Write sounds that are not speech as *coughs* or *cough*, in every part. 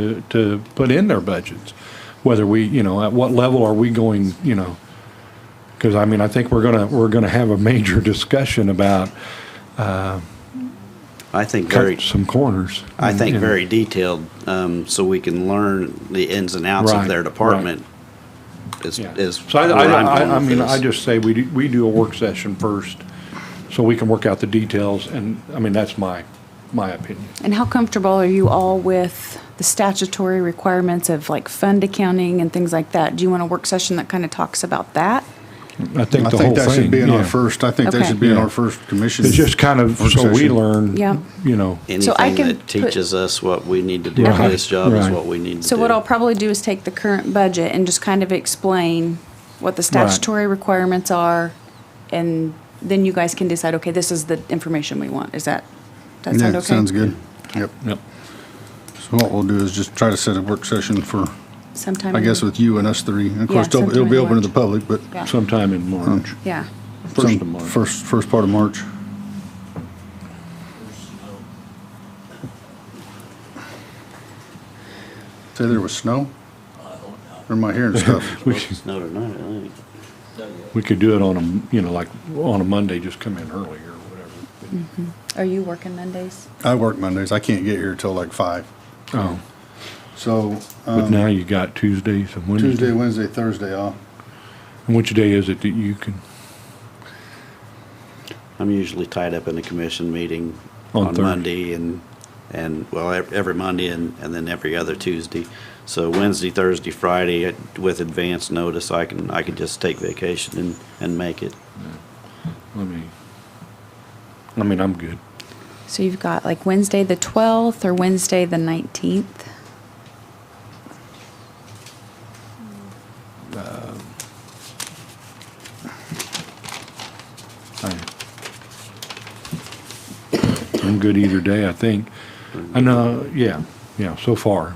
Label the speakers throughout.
Speaker 1: to- to put in their budgets. Whether we, you know, at what level are we going, you know? Because I mean, I think we're gonna, we're gonna have a major *laughs* discussion about
Speaker 2: I think very,
Speaker 1: cut some corners.
Speaker 2: I think
Speaker 1: And-
Speaker 2: very detailed, um, so we can learn the ins and outs of
Speaker 1: Right,
Speaker 2: their
Speaker 1: right.
Speaker 2: department. Is,
Speaker 1: Yeah.
Speaker 2: is.
Speaker 1: So I,
Speaker 2: where I'm
Speaker 1: I,
Speaker 2: going
Speaker 1: I- I
Speaker 2: with
Speaker 1: mean,
Speaker 2: this.
Speaker 1: I just say we, do- we do a work session first, so we can work out the details, and, I mean, that's my, my opinion.
Speaker 3: And how comfortable are you all with the statutory requirements of like fund accounting and things like that? Do you want a work session that kind of talks about that?
Speaker 1: I think the whole
Speaker 4: I think
Speaker 1: thing.
Speaker 4: that should be in our
Speaker 1: yeah.
Speaker 4: first, I think that
Speaker 3: Okay.
Speaker 4: should be in
Speaker 1: Yeah.
Speaker 4: our first commission.
Speaker 1: It's just kind of,
Speaker 4: work
Speaker 1: so we
Speaker 4: session.
Speaker 1: learn,
Speaker 3: Yeah.
Speaker 1: you know,
Speaker 3: So I
Speaker 2: Anything
Speaker 3: can
Speaker 2: that
Speaker 3: put-
Speaker 2: teaches us what we need to do
Speaker 1: Right,
Speaker 2: for this job is
Speaker 1: right.
Speaker 2: what we need to do.
Speaker 3: So what
Speaker 1: *laughs*
Speaker 3: I'll probably do is take the current budget and just kind of explain what the statutory requirements are, and then you guys can decide, okay, this is the information we want. Is that, that sound
Speaker 4: Yeah,
Speaker 3: okay?
Speaker 4: sounds good. Yep.
Speaker 1: Yep.
Speaker 4: So what we'll do is just try to set a work session for,
Speaker 3: Sometime.
Speaker 4: I guess, with you and us three. And of
Speaker 3: Yeah,
Speaker 4: course, it'll it'll
Speaker 3: sometime
Speaker 4: be
Speaker 3: in
Speaker 4: open to the
Speaker 3: March.
Speaker 4: public, but
Speaker 3: Yeah.
Speaker 1: sometime in March,
Speaker 3: Yeah.
Speaker 1: first of
Speaker 4: some-
Speaker 1: March.
Speaker 4: First, first part of March. Say there was snow? Or am I
Speaker 1: *laughs*
Speaker 4: hearing stuff?
Speaker 1: We could,
Speaker 2: No, no, no, I think.
Speaker 1: we could do it on a, you know, like, on a Monday, just come in early or whatever.
Speaker 3: Are you working Mondays?
Speaker 4: I work Mondays. I can't get here till like five.
Speaker 1: Oh,
Speaker 4: So
Speaker 1: but
Speaker 4: um,
Speaker 1: now you got Tuesdays and Wednesdays.
Speaker 4: Tuesday, Wednesday, Thursday off.
Speaker 1: And which day is it that you can,
Speaker 2: I'm usually tied up in a commission meeting
Speaker 1: On
Speaker 2: on
Speaker 1: Thursday.
Speaker 2: Monday and, and, well, ev- every Monday and, and then every other Tuesday. So Wednesday, Thursday, Friday, uh, with advance notice, I can, I can just take vacation and, and make it.
Speaker 1: let me, I mean, I'm good.
Speaker 3: So you've got like Wednesday the 12th or Wednesday the 19th?
Speaker 1: I- I'm good either day, I think. I know, yeah, yeah, so far.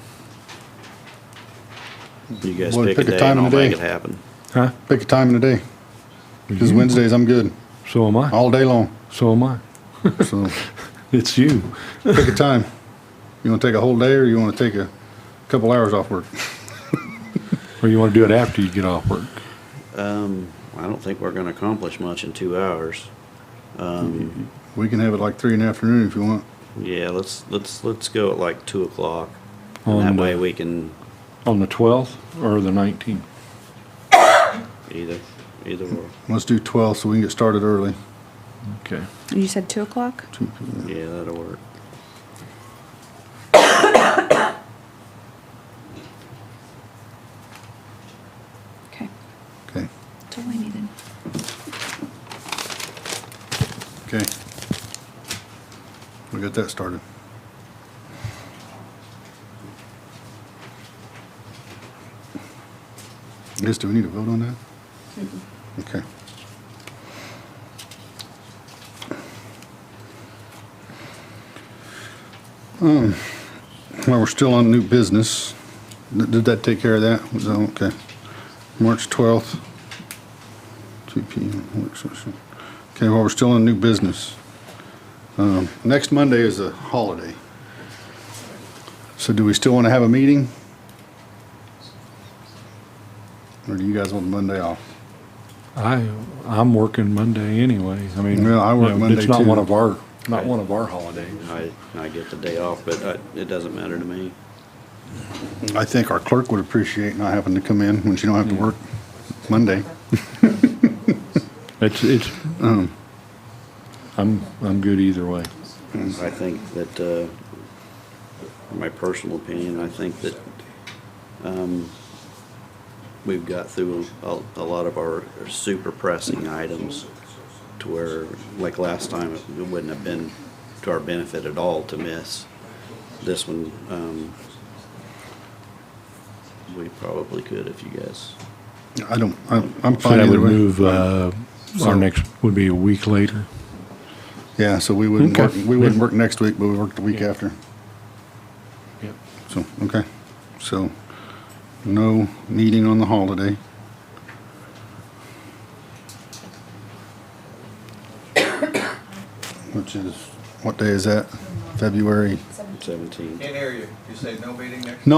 Speaker 2: You guys
Speaker 4: Well,
Speaker 2: pick a day and I'll
Speaker 4: and a
Speaker 2: make
Speaker 4: day.
Speaker 2: it happen.
Speaker 1: Huh?
Speaker 4: Pick a time in the day. Because Wednesdays I'm good
Speaker 1: So am I.
Speaker 4: all day long.
Speaker 1: So am I.
Speaker 4: So
Speaker 1: It's you.
Speaker 4: pick a time. You want to take a whole day or you want to take a couple hours off work?
Speaker 1: Or you want to do it after you get off work.
Speaker 2: Um, I don't think we're gonna accomplish much in two hours. Um,
Speaker 4: We can have it like three in the afternoon if you want.
Speaker 2: yeah, let's, let's, let's go at like two o'clock. And
Speaker 1: On
Speaker 2: that
Speaker 1: the-
Speaker 2: way we can
Speaker 1: On the 12th or the 19th?
Speaker 2: either, either or,
Speaker 4: Let's do 12 so we can get started early.
Speaker 1: Okay.
Speaker 3: And you said 2 o'clock?
Speaker 2: yeah, that'll work.
Speaker 3: Okay.
Speaker 4: Okay.
Speaker 3: That's all I needed.
Speaker 4: Okay. We got that started. I guess, do we need to vote on that? Okay. Um, Well, we're still on new business. Th- Did that take care of that? Was that okay? March 12th, 2 PM work session. Okay, well, we're still in new business. Um, Next Monday is a holiday. So do we still want to have a meeting? Or do you guys want Monday off?
Speaker 1: I, I'm working Monday anyway. I mean.
Speaker 4: Yeah, I work
Speaker 1: you know,
Speaker 4: Monday
Speaker 1: It's not
Speaker 4: too.
Speaker 1: one of our, not
Speaker 2: Right.
Speaker 1: one of our holidays.
Speaker 2: I, I get the day off, but I- it doesn't matter to me.
Speaker 4: I think our clerk would appreciate not having to come in when she don't have to
Speaker 1: Hmm.
Speaker 4: work Monday.
Speaker 1: It's, it's,
Speaker 4: Oh.
Speaker 1: I'm, I'm good either way.
Speaker 2: I think that, uh, my personal opinion, I think that, um, we've got through a, a lot of our super pressing items to where, like last time, it wouldn't have been to our benefit at all to miss. This one, um, we probably could if you guys,
Speaker 4: I don't, I'm I'm
Speaker 1: So
Speaker 4: fine
Speaker 1: that
Speaker 4: either
Speaker 1: would
Speaker 4: way.
Speaker 1: move, uh,
Speaker 4: So-
Speaker 1: our next would be a week later.
Speaker 4: Yeah, so we wouldn't
Speaker 1: Okay.
Speaker 4: work, we wouldn't work next week, but we work the week
Speaker 1: Yeah.
Speaker 4: after.
Speaker 1: Yep.
Speaker 4: So, okay, so no meeting on the holiday. *coughs* Which is, what day is that? February?
Speaker 2: seventeen.
Speaker 5: Can't hear you. You say no meeting next?